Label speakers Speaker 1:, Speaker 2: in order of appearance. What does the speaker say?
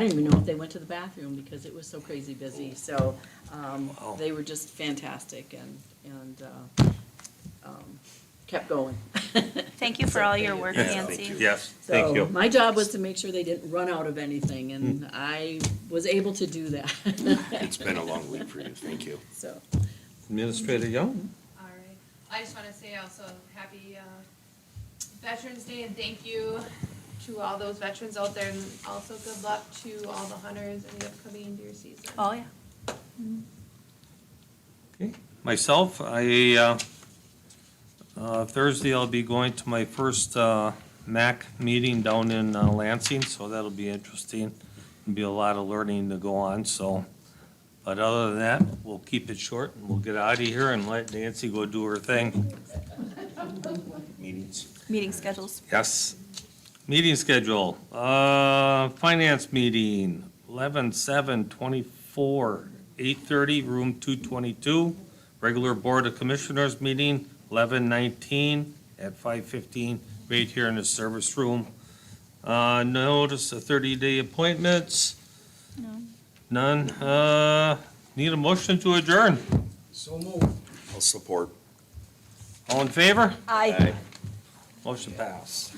Speaker 1: I didn't even know if they went to the bathroom because it was so crazy
Speaker 2: Oh.
Speaker 1: busy. So um, they were just fantastic and, and uh, um, kept going.
Speaker 3: Thank you for all your work,
Speaker 2: Yeah,
Speaker 3: Nancy.
Speaker 2: Yes, thank
Speaker 1: So
Speaker 2: you. Hmm.
Speaker 1: my job was to make sure they didn't run out of anything and I was able to do that.
Speaker 2: It's been a long week for you, thank you.
Speaker 1: So,
Speaker 4: Administrator Young?
Speaker 5: All right. I just want to say also happy uh, Veterans Day and thank you to all those veterans out there and also good luck to all the hunters in the upcoming deer season.
Speaker 3: Oh, yeah.
Speaker 4: Okay. Myself, I, uh, uh, Thursday I'll be going to my first uh, MAC meeting down in uh, Lansing, so that'll be interesting. Be a lot of learning to go on, so. But other than that, we'll keep it short and we'll get out of here and let Nancy go do her thing.
Speaker 2: Meetings.
Speaker 3: Meeting schedules.
Speaker 4: Yes. Meeting schedule, uh, finance meeting, eleven, seven, twenty-four, eight thirty, room two twenty-two. Regular Board of Commissioners meeting, eleven, nineteen, at five fifteen, right here in the service room. Uh, notice of thirty-day appointments. None. None, uh, need a motion to adjourn.
Speaker 2: I'll support.
Speaker 4: All in favor?
Speaker 3: Aye.
Speaker 4: Motion passed.